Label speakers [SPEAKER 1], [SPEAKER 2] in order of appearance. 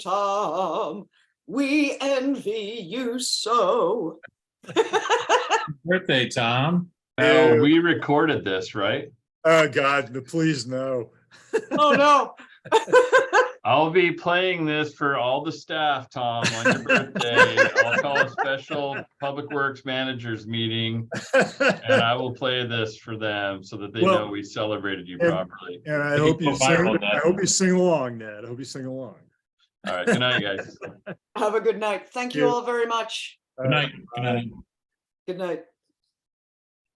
[SPEAKER 1] Tom, we envy you so.
[SPEAKER 2] Birthday, Tom.
[SPEAKER 3] Oh,
[SPEAKER 4] Ew.
[SPEAKER 3] we recorded this, right?
[SPEAKER 4] Oh, God, no, please, no.
[SPEAKER 1] Oh, no.
[SPEAKER 3] I'll be playing this for all the staff, Tom, on your birthday. I'll call a special Public Works Managers meeting and
[SPEAKER 4] And
[SPEAKER 3] I will play this for them so that they
[SPEAKER 4] Well,
[SPEAKER 3] know we celebrated you
[SPEAKER 4] and-
[SPEAKER 3] properly.
[SPEAKER 4] I
[SPEAKER 3] You
[SPEAKER 4] hope
[SPEAKER 3] can
[SPEAKER 4] you
[SPEAKER 3] go viral,
[SPEAKER 4] sing, I
[SPEAKER 3] Ned.
[SPEAKER 4] hope you sing along, Ned. I hope you sing along.
[SPEAKER 3] All right, good night, guys.
[SPEAKER 1] Have a good night. Thank you
[SPEAKER 4] Cheers.
[SPEAKER 1] all very much.
[SPEAKER 2] Good night. Good night.
[SPEAKER 1] Good night.